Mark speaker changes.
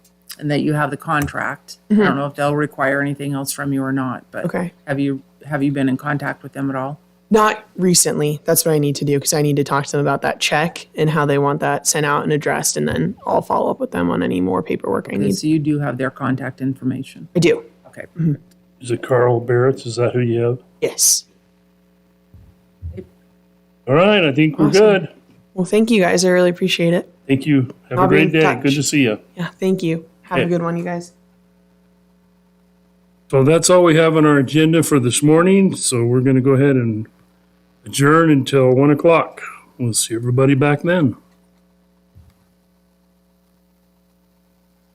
Speaker 1: and that you have the contract. I don't know if they'll require anything else from you or not, but
Speaker 2: Okay.
Speaker 1: have you, have you been in contact with them at all?
Speaker 2: Not recently. That's what I need to do because I need to talk to them about that check and how they want that sent out and addressed, and then I'll follow up with them on any more paperwork I need.
Speaker 1: So you do have their contact information.
Speaker 2: I do.
Speaker 1: Okay.
Speaker 3: Is it Carl Barrett's? Is that who you have?
Speaker 2: Yes.
Speaker 3: All right, I think we're
Speaker 2: Awesome.
Speaker 3: good.
Speaker 2: Well, thank you guys. I really appreciate it.
Speaker 3: Thank you. Have
Speaker 2: I'll
Speaker 3: a
Speaker 2: be in
Speaker 3: great day.
Speaker 2: touch.
Speaker 3: Good to see you.
Speaker 2: Yeah. Thank you. Have a
Speaker 3: Okay.
Speaker 2: good one, you guys.
Speaker 3: So that's all we have on our agenda for this morning. So we're going to go ahead and adjourn until one o'clock. We'll see everybody back then.